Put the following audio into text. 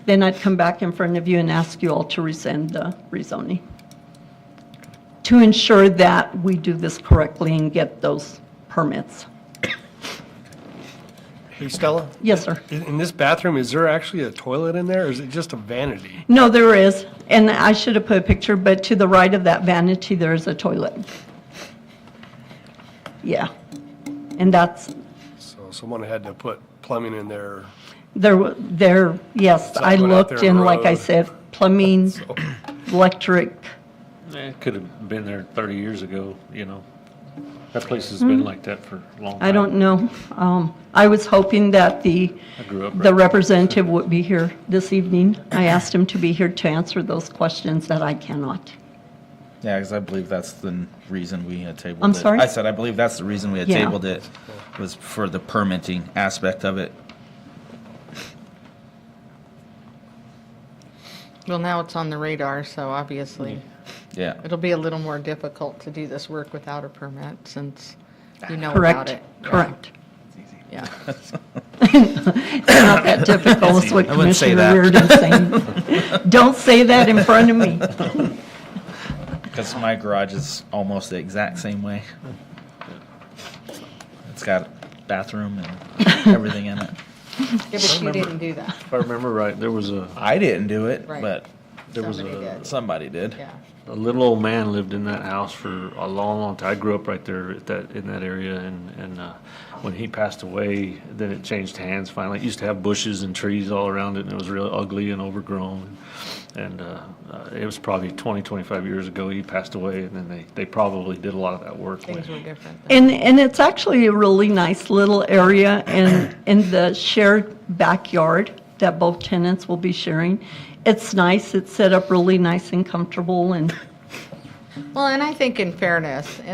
Then I'd come back in front of you and ask you all to rescind the rezoning to ensure that we do this correctly and get those permits. Hey Stella, Yes, sir. in in this bathroom, is there actually a toilet in there, or is it just a vanity? No, there is, and I should have put a picture, but to the right of that vanity, there is a toilet. Yeah. And that's, So someone had to put plumbing in there. there, wa- there, yes, I Something out looked there on and the like I road. said, plumbing, electric, Eh, It could have been there 30 years ago, you know. That place has been like that for a long time. Mm-hmm. I don't know. Um, I was hoping that the, I grew up the right- representative would be here this evening. I asked him to be here to answer those questions that I cannot. Yeah, because I believe that's the reason we had tabled it. I'm sorry? I said, I believe that's the reason we had Yeah. tabled it, was for the permitting aspect of it. Well, now it's on the radar, so obviously, Hmm. Yeah. it'll be a little more difficult to do this work without a permit since you know about Correct? it. Yeah, Correct. Yeah. Not that difficult is what I wouldn't say Commissioner Reardon saying. Don't say that in front of me. Because my garage is almost the exact same way. It's got bathroom and everything in it. Yeah, but you didn't do that. If I remember right, there was a, I didn't do it, Right. but there was Somebody a, did. somebody did. Yeah. a little old man lived in that house for a long, long time. I grew up right there at that, in that area and, and, uh, when he passed away, then it changed hands finally. It used to have bushes and trees all around it and it was real ugly and overgrown. And, uh, uh, it was probably 20, 25 years ago. He passed away and then they, they probably did a lot of that work. when- Things were different. then. And, and it's actually a really nice little area, and in the shared backyard that both tenants will be sharing. It's nice, it's set up really nice and comfortable, and Well, and I think in fairness,